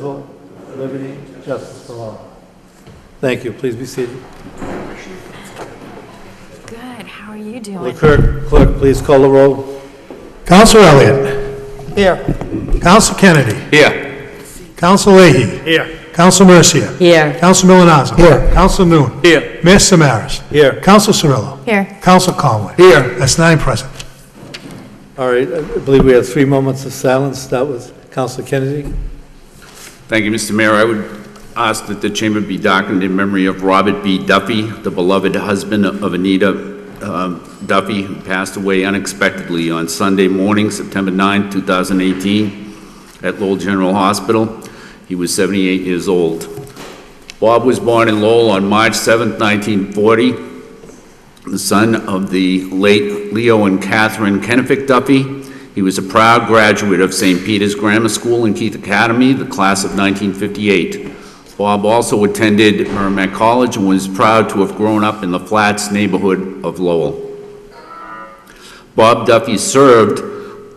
civil liberty, justice for all. Thank you. Please be seated. Good, how are you Will doing? the clerk, clerk, please call the roll? Counsel Elliott. Here. Counsel Kennedy. Here. Counsel Leahy. Here. Counsel Mercia. Here. Counsel Milonazo. Here. Counsel Noon. Here. Mayor Samaras. Here. Counsel Cirillo. Here, Counsel Conway. Here. That's nine present. All right, I believe we have three moments of silence. That was Counselor Kennedy. Thank you, Mr. Mayor. I would ask that the chamber be darkened in memory of Robert B. Duffy, the beloved husband of Anita um, Duffy, who passed away unexpectedly on Sunday morning, September 9, 2018, at Lowell General Hospital. He was 78 years old. Bob was born in Lowell on March 7, 1940, the son of the late Leo and Catherine Kennefic Duffy. He was a proud graduate of St. Peter's Grammar School and Keith Academy, the class of 1958. Bob also attended Merrimack College and was proud to have grown up in the Flats neighborhood of Lowell. Bob Duffy served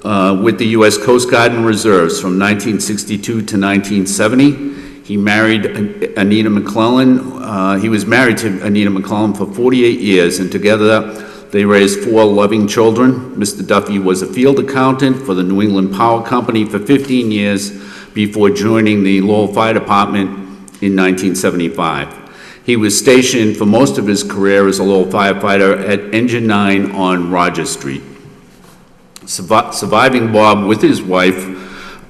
uh, with the U.S. Coast Guard and Reserves from 1962 to 1970. He married An- Anita McClellan, uh, he was married to Anita McClellan for 48 years, and together they raised four loving children. Mr. Duffy was a field accountant for the New England Power Company for 15 years before joining the Lowell Fire Department in 1975. He was stationed for most of his career as a Lowell firefighter at Engine 9 on Rogers Street. Survi- Surviving Bob with his wife,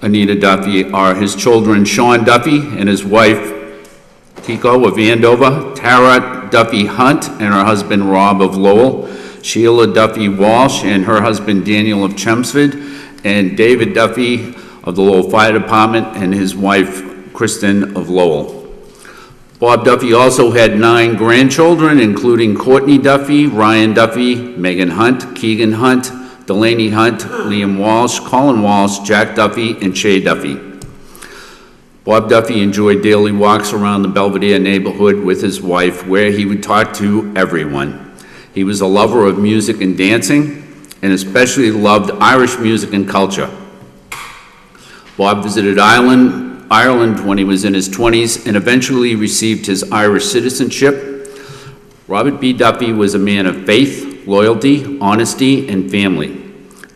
Anita Duffy, are his children Sean Duffy and his wife Kiko of Andover, Tara Duffy Hunt and her husband Rob of Lowell, Sheila Duffy Walsh and her husband Daniel of Chelmsford, and David Duffy of the Lowell Fire Department and his wife Kristen of Lowell. Bob Duffy also had nine grandchildren, including Courtney Duffy, Ryan Duffy, Megan Hunt, Keegan Hunt, Delaney Hunt, Liam Walsh, Colin Walsh, Jack Duffy, and Shay Duffy. Bob Duffy enjoyed daily walks around the Belvedere neighborhood with his wife, where he would talk to everyone. He was a lover of music and dancing, and especially loved Irish music and culture. Bob visited Ireland, Ireland when he was in his 20s and eventually received his Irish citizenship. Robert B. Duffy was a man of faith, loyalty, honesty, and family.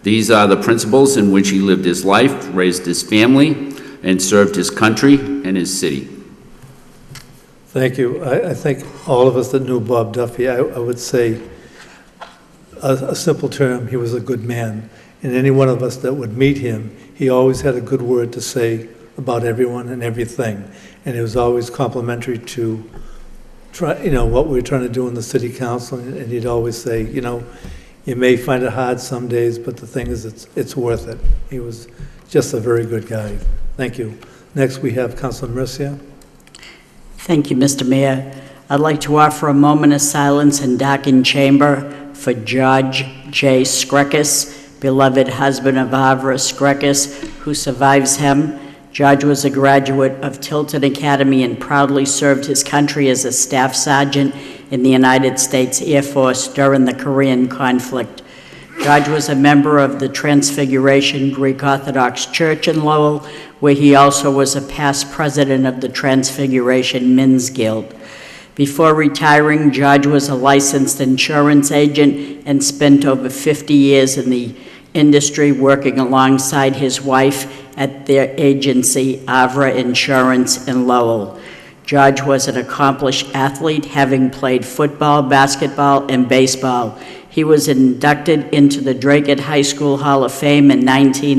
These are the principles in which he lived his life, raised his family, and served his country and his city. Thank you. I, I think all of us that knew Bob Duffy, I, I would say, a, a simple term, he was a good man. And any one of us that would meet him, he always had a good word to say about everyone and everything. And it was always complimentary to try, you know, what we were trying to do in the city council. And he'd always say, you know, you may find it hard some days, but the thing is, it's, it's worth it. He was just a very good guy. Thank you. Next, we have Councilor Mercia. Thank you, Mr. Mayor. I'd like to offer a moment of silence and dock in chamber for George J. Skrekis, beloved husband of Avra Skrekis, who survives him. George was a graduate of Tilton Academy and proudly served his country as a staff sergeant in the United States Air Force during the Korean conflict. George was a member of the Transfiguration Greek Orthodox Church in Lowell, where he also was a past president of the Transfiguration Men's Guild. Before retiring, George was a licensed insurance agent and spent over 50 years in the industry working alongside his wife at their agency, Avra Insurance in Lowell. George was an accomplished athlete, having played football, basketball, and baseball. He was inducted into the Dracut High School Hall of Fame in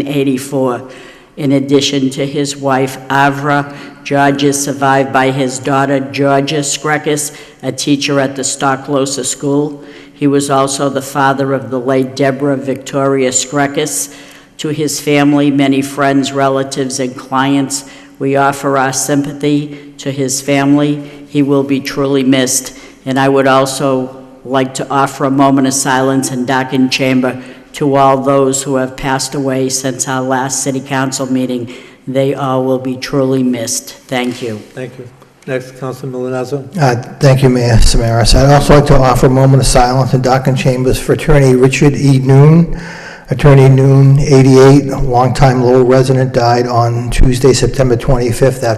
1984. In addition to his wife, Avra, George is survived by his daughter, Georgia Skrekis, a teacher at the Stocklosa School. He was also the father of the late Deborah Victoria Skrekis. To his family, many friends, relatives, and clients, we offer our sympathy to his family. He will be truly missed. And I would also like to offer a moment of silence and dock in chamber to all those who have passed away since our last city council meeting. They all will be truly missed. Thank you. Thank you. Next, Councilor Milonazo. Uh, Thank you, Mayor Samaras. I'd also like to offer a moment of silence in Dock and Chambers for attorney Richard E. Noon, Attorney Noon, 88, longtime Lowell resident, died on Tuesday, September 25th after